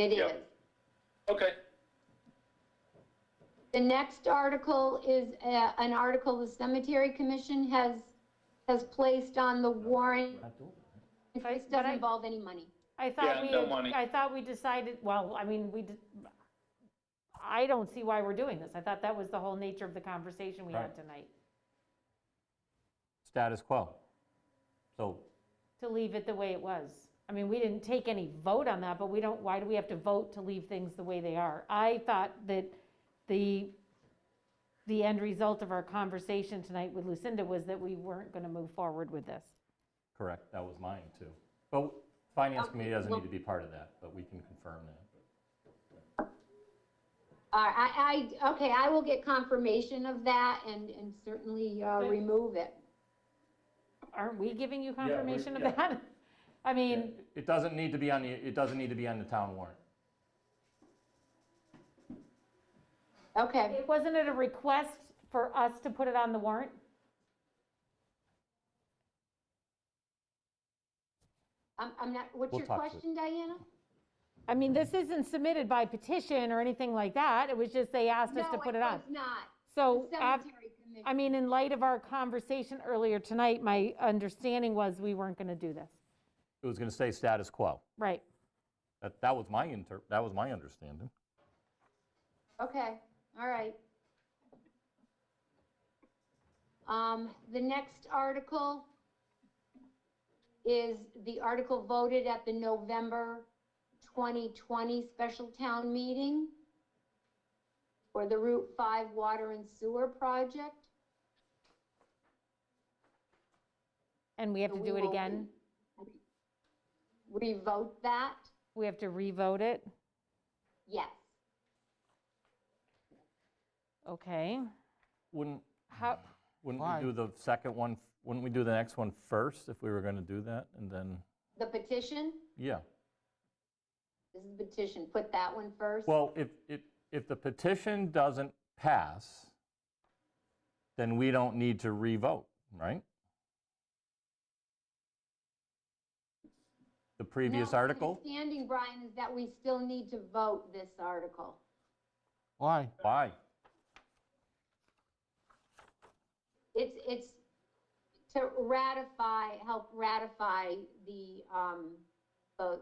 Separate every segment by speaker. Speaker 1: It
Speaker 2: Yep.
Speaker 1: is.
Speaker 2: Okay,
Speaker 1: The next article is uh, an article the Cemetery Commission has, has placed on the warrant.
Speaker 3: I-
Speaker 1: This
Speaker 3: but
Speaker 1: doesn't
Speaker 3: I-
Speaker 1: involve any money.
Speaker 3: I
Speaker 2: Yeah,
Speaker 3: thought we,
Speaker 2: no
Speaker 3: had-
Speaker 2: money.
Speaker 3: I thought we decided, well, I mean, we, did- I don't see why we're doing this. I thought that was the whole nature of the conversation we had
Speaker 4: Right.
Speaker 3: tonight,
Speaker 4: Status quo. So,
Speaker 3: to leave it the way it was. I mean, we didn't take any vote on that, but we don't, why do we have to vote to leave things the way they are? I thought that the, the end result of our conversation tonight with Lucinda was that we weren't going to move forward with this.
Speaker 4: correct, that was mine too. But Finance
Speaker 1: Okay,
Speaker 4: Committee doesn't
Speaker 1: well-
Speaker 4: need to be part of that, but we can confirm that.
Speaker 1: Uh, I, I, okay, I will get confirmation of that and, and certainly uh,
Speaker 3: Okay.
Speaker 1: remove it.
Speaker 3: Aren't we giving you
Speaker 4: we-
Speaker 3: confirmation of
Speaker 4: yeah.
Speaker 3: that? I mean,
Speaker 4: It doesn't need to be on the, it doesn't need to be on the town warrant.
Speaker 1: Okay.
Speaker 3: it wasn't it a request for us to put it on the warrant?
Speaker 1: I'm, I'm not, what's
Speaker 4: We'll
Speaker 1: your
Speaker 4: talk to it.
Speaker 1: question, Diana?
Speaker 3: I mean, this isn't submitted by petition or anything like that. It was just they asked us to put it on.
Speaker 1: No,
Speaker 3: So, uh,
Speaker 1: it's not. The
Speaker 3: af-
Speaker 1: Cemetery Commission.
Speaker 3: I mean, in light of our conversation earlier tonight, my understanding was we weren't going to do this.
Speaker 4: It was going to say status quo.
Speaker 3: Right.
Speaker 4: That, that was my inter, that was my understanding.
Speaker 1: Okay, all right. Um, the next article is the article voted at the November 2020 special town meeting for the Route 5 Water and Sewer Project.
Speaker 3: And we have
Speaker 1: So
Speaker 3: to
Speaker 1: we
Speaker 3: do it
Speaker 1: will
Speaker 3: again?
Speaker 1: Revote that?
Speaker 3: We have to revote it?
Speaker 1: Yes.
Speaker 3: Okay.
Speaker 4: Wouldn't,
Speaker 3: How,
Speaker 4: wouldn't we do the second one, wouldn't we do the next one first if we were going to do that? And then,
Speaker 1: The petition,
Speaker 4: yeah.
Speaker 1: this is the petition, put that one first.
Speaker 4: Well, if, if, if the petition doesn't pass, then we don't need to revote, right? The previous
Speaker 1: No, my
Speaker 4: article?
Speaker 1: Understanding, Brian, is that we still need to vote this article.
Speaker 5: Why?
Speaker 4: Why?
Speaker 1: It's, it's to ratify, help ratify the, um, the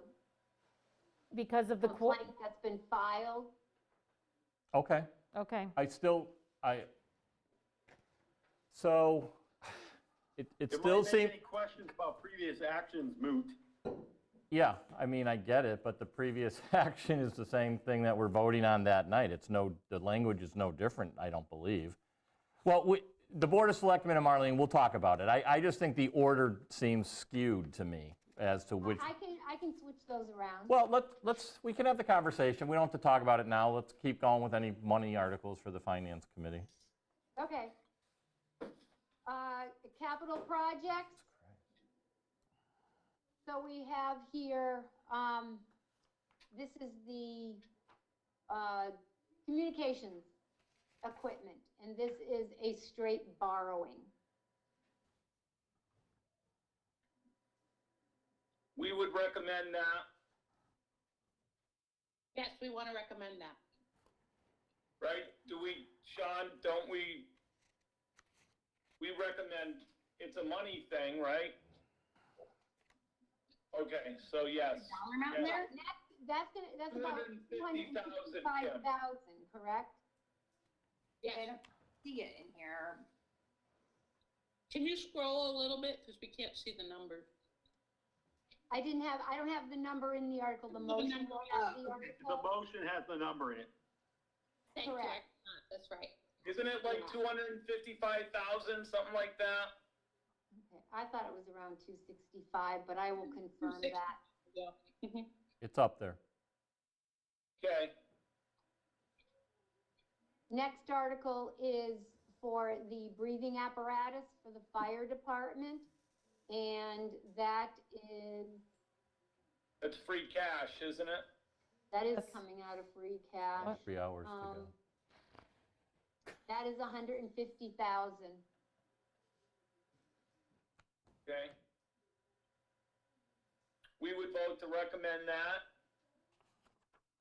Speaker 3: because of the, qu-
Speaker 1: complaint that's been filed.
Speaker 4: Okay,
Speaker 3: okay.
Speaker 4: I still, I, so, it, it
Speaker 2: it
Speaker 4: still
Speaker 2: really make
Speaker 4: seems,
Speaker 2: any questions about previous actions moot.
Speaker 4: yeah, I mean, I get it, but the previous action is the same thing that we're voting on that night. It's no, the language is no different, I don't believe. Well, we, the Board of Selectmen and Marlene, we'll talk about it. I, I just think the order seems skewed to me as to which.
Speaker 1: I can, I can switch those around.
Speaker 4: Well, let's, let's, we can have the conversation. We don't have to talk about it now. Let's keep going with any money articles for the Finance Committee.
Speaker 1: Okay. Uh, capital projects. So we have here, um, this is the, uh, communications equipment, and this is a straight borrowing.
Speaker 2: We would recommend that,
Speaker 6: Yes, we want to recommend that.
Speaker 2: right? Do we, Sean, don't we? We recommend, it's a money thing, right? Okay, so yes.
Speaker 6: Dollar amount in
Speaker 2: Yeah.
Speaker 6: there?
Speaker 1: That's- That's gonna, that's about two hundred and
Speaker 2: 250,000, yeah.
Speaker 1: fifty-five thousand, correct?
Speaker 6: Yes.
Speaker 1: See it in here.
Speaker 6: Can you scroll a little bit, because we can't see the number?
Speaker 1: I didn't have, I don't have the number in the article, the
Speaker 6: The
Speaker 1: motion.
Speaker 6: number,
Speaker 1: will
Speaker 2: Uh,
Speaker 1: have the
Speaker 2: The
Speaker 1: article.
Speaker 2: motion has the number in it.
Speaker 6: Thank you,
Speaker 1: Correct.
Speaker 6: I- that's right.
Speaker 2: Isn't it like 255,000, something like that?
Speaker 1: Okay, I thought it was around two sixty-five, but I will confirm
Speaker 6: 260.
Speaker 1: that.
Speaker 6: Yeah.
Speaker 4: It's up there.
Speaker 2: Okay,
Speaker 1: Next article is for the breathing apparatus for the fire department. And that is,
Speaker 2: it's free cash, isn't it?
Speaker 1: that is
Speaker 3: Yes.
Speaker 1: coming out of free cash.
Speaker 3: What?
Speaker 4: Three hours to go.
Speaker 1: Um, That is a hundred and fifty thousand.
Speaker 2: Okay. We would vote to recommend that.